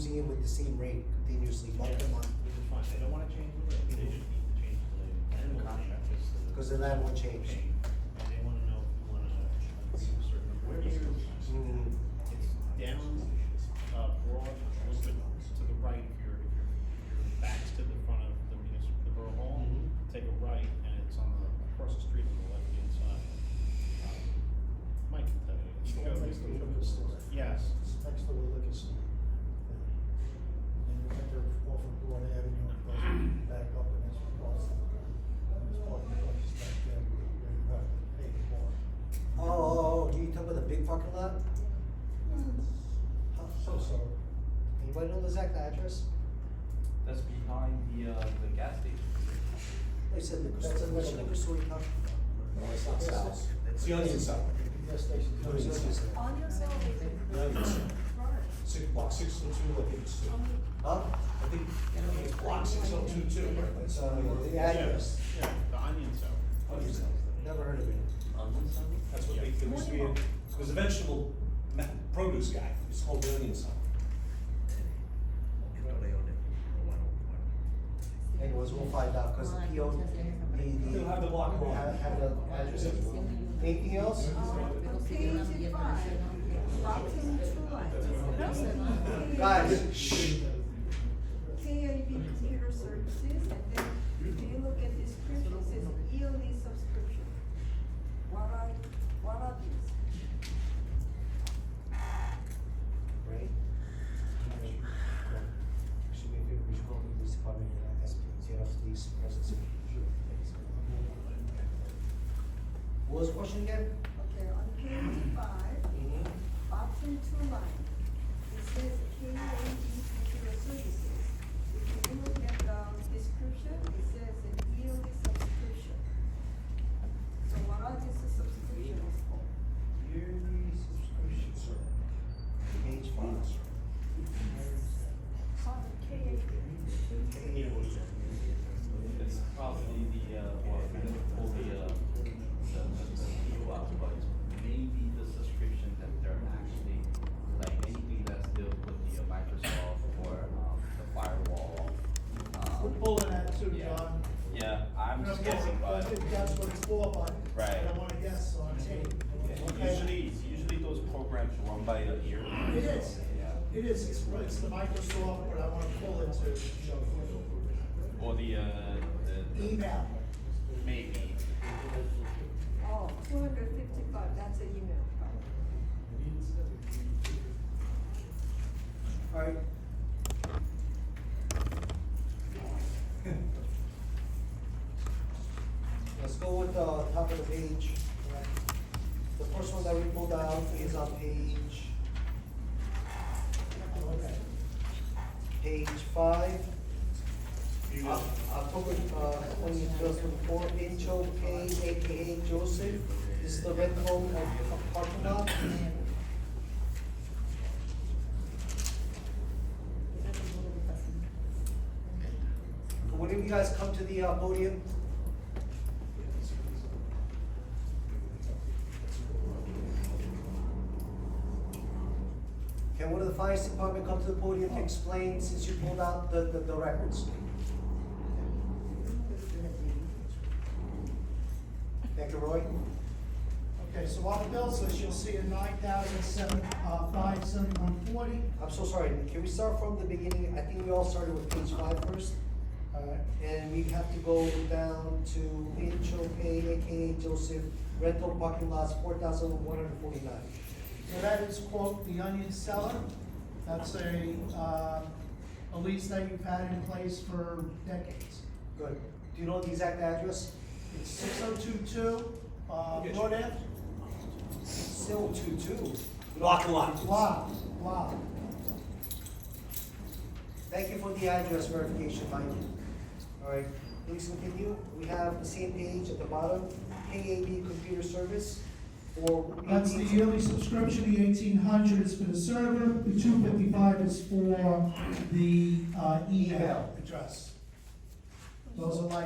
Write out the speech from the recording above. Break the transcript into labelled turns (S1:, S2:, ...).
S1: same rate continuously month to month,
S2: Which is fine, they don't wanna change the rate, they just need to change the
S1: End
S2: annual
S1: contract.
S2: fee, just the-
S1: cause then that won't change.
S2: Okay, And they wanna know if you wanna agree to certain appointments.
S1: Mm,
S2: It's down, uh, broad, a little bit to the right if you're, if you're, if your back's to the front of the municipal, the borough hall.
S1: Mhm.
S2: Take a right and it's on the, across the street on the left hand side. Um, Mike can tell you. It's
S3: It's
S2: got-
S3: next to the liquor store.
S2: Yes.
S3: It's next to the liquor store. And you enter off of Broad Avenue and goes back up and it's across. And there's parking places back there where you have to pay for.
S1: Oh, oh, oh, you talk about the big fucking lot? Huh,
S3: So, so,
S1: Anybody know the exact address?
S4: That's behind the, uh, the gas station.
S1: They said liquor
S3: That's
S1: store,
S3: a
S1: which
S3: little-
S1: liquor store you talking
S5: No, it's not south. It's the onion side.
S3: the gas station.
S1: about? Which liquor store?
S6: On your cell,
S5: The onion side.
S6: Robert.
S5: Six, block six oh two, I think it's two.
S1: Huh?
S5: I think, I think it's block six oh two two, right? It's,
S1: Uh,
S5: uh,
S1: the address,
S2: Yeah, the onion cell.
S5: onion side.
S1: never heard of it.
S4: On one side?
S5: That's what they, there used to be, a- it was a vegetable ma- produce guy, it's called the onion side.
S1: Anyways, we'll find out, cause the PO, the, the.
S5: They'll have the block wrong.
S1: Have, have the address. Anything else?
S6: Page five, Robinson Two Lines.
S1: Guys,
S6: KIV computer services, and then if you look at this script, it says yearly subscription. What are, what are these?
S1: right? Should we favor, we should call the police department and ask them to get off these presents. What was Mm-hmm. the question again?
S6: Okay, on page five, option two line, it says K A D computer services. If you look at the description, it says a yearly subscription. So what are these subscriptions for?
S1: Yearly subscription, sir. Page five.
S6: On K A D.
S4: It's probably the, uh, well, we don't pull the, uh, the, the, the PO out, but maybe the subscription that they're actually, like, anything that's dealt with the uh, Microsoft or, um, the firewall. um,
S3: We're pulling that too,
S4: yeah.
S3: John.
S4: Yeah, I'm just guessing,
S3: I
S4: but,
S3: think that's what it's for, but I
S4: Right.
S3: don't wanna guess, so I'm saying.
S4: usually, usually those programs run by the ear.
S3: It is.
S4: Yeah,
S3: It is, it's, it's the Microsoft, what I wanna call it to,
S4: or the, uh, the. the-
S3: email.
S4: Maybe.
S6: Oh, two hundred fifty-five, that's an email.
S1: Alright. Let's go with the top of the page. The first one that we pulled out is on page,
S3: Okay.
S1: page five. Oc- October, uh, twenty, twenty-four, Angel K, AKA Joseph, this is the rental of of parking lot. Would you guys come to the uh, podium? Can one of the finance department come to the podium to explain, since you pulled out the, the, the records? Thank you, Roy.
S3: Okay, so on the bill list, you'll see a nine thousand seven, uh, five seventy-one forty.
S1: I'm so sorry, can we start from the beginning? I think we all started with page five first. Uh,
S3: Alright,
S1: And we have to go down to Angel Pay, AKA Joseph, rental parking lots, four thousand one hundred forty-nine.
S3: so that is quote, the onion seller. That's a, uh, a lease that you've had in place for decades.
S1: Good. Do you know the exact address?
S3: It's six oh two two, uh,
S5: Yes.
S3: Broad Ave.
S1: Still two-two.
S5: Block and lot.
S3: Wow, wow.
S1: Thank you for the address verification, Mike. All right, please continue. We have the same page at the bottom, KAB Computer Service for.
S3: That's the yearly subscription, the eighteen hundred is for the server, the two fifty-five is for the, uh, email address. E Those are like